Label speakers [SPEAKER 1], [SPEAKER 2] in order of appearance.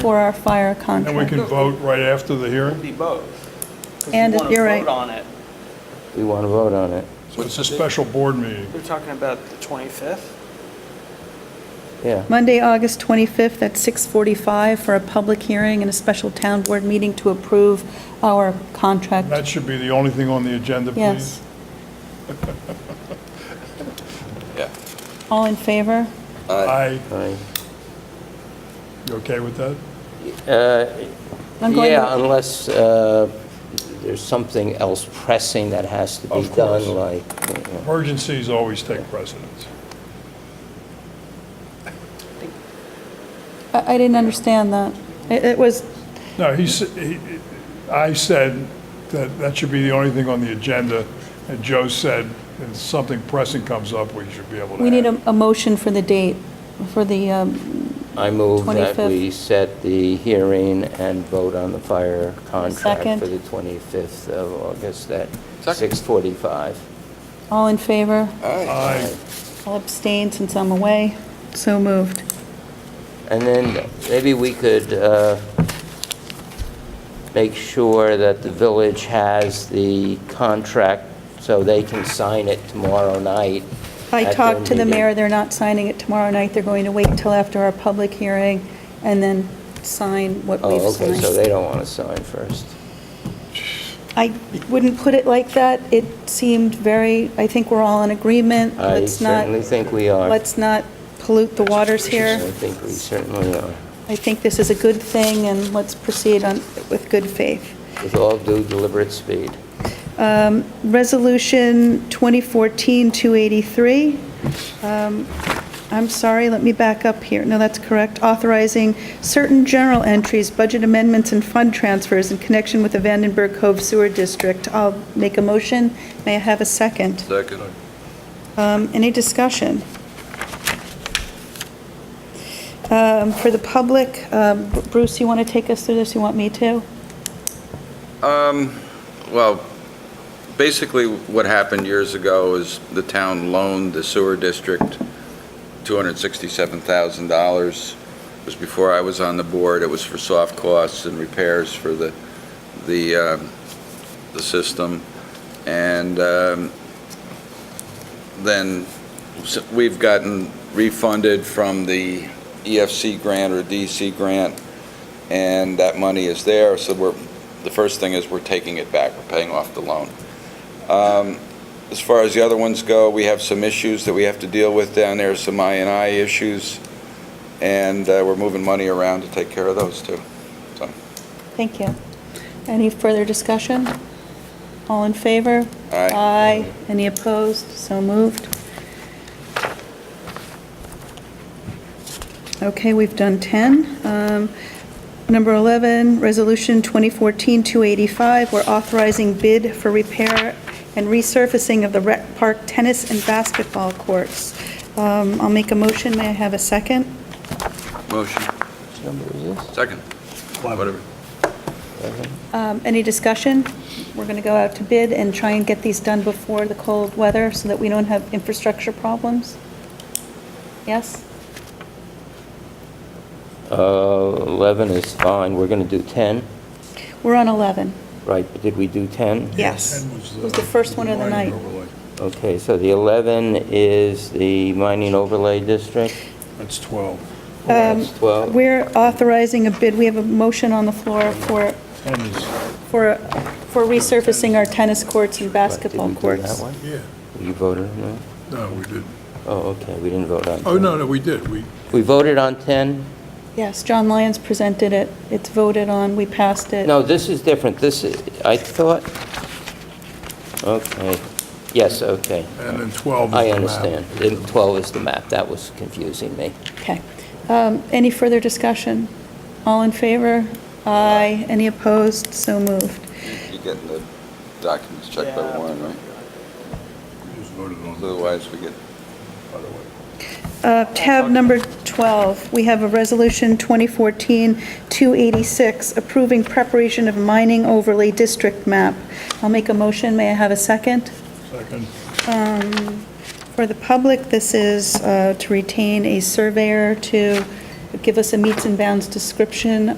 [SPEAKER 1] for our fire
[SPEAKER 2] And we
[SPEAKER 1] contract.
[SPEAKER 2] can vote right after the hearing?
[SPEAKER 3] Be both. 'cause you
[SPEAKER 1] And
[SPEAKER 3] wanna
[SPEAKER 1] you're right.
[SPEAKER 3] vote on it.
[SPEAKER 4] We want to vote on it.
[SPEAKER 2] So it's a special board meeting.
[SPEAKER 3] We're talking about the 25th?
[SPEAKER 4] Yeah.
[SPEAKER 1] Monday, August 25th at 6:45 for a public hearing and a special town board meeting to approve our contract.
[SPEAKER 2] That should be the only thing on the agenda,
[SPEAKER 1] Yes.
[SPEAKER 2] please.
[SPEAKER 5] Yeah.
[SPEAKER 1] All in favor?
[SPEAKER 2] I,
[SPEAKER 4] Fine.
[SPEAKER 2] you okay with that?
[SPEAKER 4] Uh,
[SPEAKER 1] I'm going to-
[SPEAKER 4] Yeah, unless uh, there's something else pressing that has to be
[SPEAKER 2] Of course.
[SPEAKER 4] done, like, you know.
[SPEAKER 2] Emergencies always take precedence.
[SPEAKER 1] I I didn't understand that. It it was,
[SPEAKER 2] No, he, s- he- I said that that should be the only thing on the agenda, and Joe said, if something pressing comes up, we should be able to
[SPEAKER 1] we need
[SPEAKER 2] act."
[SPEAKER 1] a a motion for the date, for the, um,
[SPEAKER 4] I move that
[SPEAKER 1] 25th.
[SPEAKER 4] we set the hearing and vote on the fire
[SPEAKER 1] Second.
[SPEAKER 4] contract for the 25th of August at
[SPEAKER 5] Second.
[SPEAKER 4] 6:45.
[SPEAKER 1] all in favor?
[SPEAKER 2] I,
[SPEAKER 1] I'll abstain since I'm away. So moved.
[SPEAKER 4] And then maybe we could uh, make sure that the village has the contract so they can sign it tomorrow night.
[SPEAKER 1] I
[SPEAKER 4] at their
[SPEAKER 1] talked to the
[SPEAKER 4] meeting.
[SPEAKER 1] mayor, they're not signing it tomorrow night, they're going to wait till after our public hearing and then sign what we've
[SPEAKER 4] Oh, okay, so they
[SPEAKER 1] signed.
[SPEAKER 4] don't want to sign first.
[SPEAKER 1] I wouldn't put it like that, it seemed very, I think we're all in agreement,
[SPEAKER 4] I
[SPEAKER 1] let's not,
[SPEAKER 4] certainly think we are.
[SPEAKER 1] let's not pollute the waters
[SPEAKER 4] I
[SPEAKER 1] here.
[SPEAKER 4] think we certainly are.
[SPEAKER 1] I think this is a good thing, and let's proceed on, with good faith.
[SPEAKER 4] With all due deliberate speed.
[SPEAKER 1] Um, Resolution 2014-283. Um, I'm sorry, let me back up here. No, that's correct. Authorizing certain general entries, budget amendments, and fund transfers in connection with the Vandenberg Cove Sewer District. I'll make a motion. May I have a second?
[SPEAKER 5] Second.
[SPEAKER 1] Um, Any discussion? Um, For the public, um, Bruce, you want to take us through this? You want me to?
[SPEAKER 5] Um, well, basically what happened years ago is the town loaned the sewer district $267,000. It was before I was on the board. It was for soft costs and repairs for the, the, um, the system. And, um, then s- we've gotten refunded from the EFC grant or DC grant, and that money is there, so we're the first thing is we're taking it back, we're paying off the loan. Um, As far as the other ones go, we have some issues that we have to deal with down there, some I issues, and uh, we're moving money around to take care of those too. So,
[SPEAKER 1] Thank you. Any further discussion? All in favor?
[SPEAKER 5] Aye.
[SPEAKER 1] Aye. Any opposed? So moved. Okay, we've done 10. Um, Number 11, Resolution 2014-285, we're authorizing bid for repair and resurfacing of the rec park tennis and basketball courts. Um, I'll make a motion, may I have a second?
[SPEAKER 5] Motion,
[SPEAKER 4] Which number is this?
[SPEAKER 5] second, whatever.
[SPEAKER 1] Um, Any discussion? We're going to go out to bid and try and get these done before the cold weather so that we don't have infrastructure problems? Yes?
[SPEAKER 4] Uh, 11 is fine, we're going to do 10,
[SPEAKER 1] We're on 11.
[SPEAKER 4] right? But Did we do 10?
[SPEAKER 1] Yes.
[SPEAKER 2] Ken was,
[SPEAKER 1] It
[SPEAKER 2] uh,
[SPEAKER 1] was the first one of the
[SPEAKER 2] mining
[SPEAKER 1] night.
[SPEAKER 2] overlay.
[SPEAKER 4] Okay, so the 11 is the mining overlay district?
[SPEAKER 2] That's 12.
[SPEAKER 1] Um,
[SPEAKER 4] That's 12.
[SPEAKER 1] We're authorizing a bid. We have a motion on the floor for,
[SPEAKER 2] 10 is,
[SPEAKER 1] for, for resurfacing our tennis courts and basketball
[SPEAKER 4] Did we do that
[SPEAKER 1] courts.
[SPEAKER 4] one?
[SPEAKER 2] yeah,
[SPEAKER 4] You voted on that?
[SPEAKER 2] no, we didn't.
[SPEAKER 4] Oh, okay, we didn't vote on 10.
[SPEAKER 2] Oh, no, no, we did, we,
[SPEAKER 4] We voted on 10?
[SPEAKER 1] Yes, John Lyons presented it. It's voted on. We passed it.
[SPEAKER 4] No, this is different, this is, I thought, okay, yes, okay.
[SPEAKER 2] and then 12 is the
[SPEAKER 4] I
[SPEAKER 2] map.
[SPEAKER 4] understand. And 12 is the map, that was confusing me.
[SPEAKER 1] Okay. Um, Any further discussion? All in favor? Aye. Any opposed? So moved.
[SPEAKER 5] You're getting the documents checked by
[SPEAKER 3] Yeah.
[SPEAKER 5] Warren, right?
[SPEAKER 2] We just voted on the
[SPEAKER 5] Otherwise, we get,
[SPEAKER 2] by the way.
[SPEAKER 1] Uh, Tab number 12, we have a resolution 2014-286, approving preparation of mining overlay district map. I'll make a motion, may I have a second?
[SPEAKER 2] Second,
[SPEAKER 1] For the public, this is uh, to retain a surveyor to give us a meets and bounds description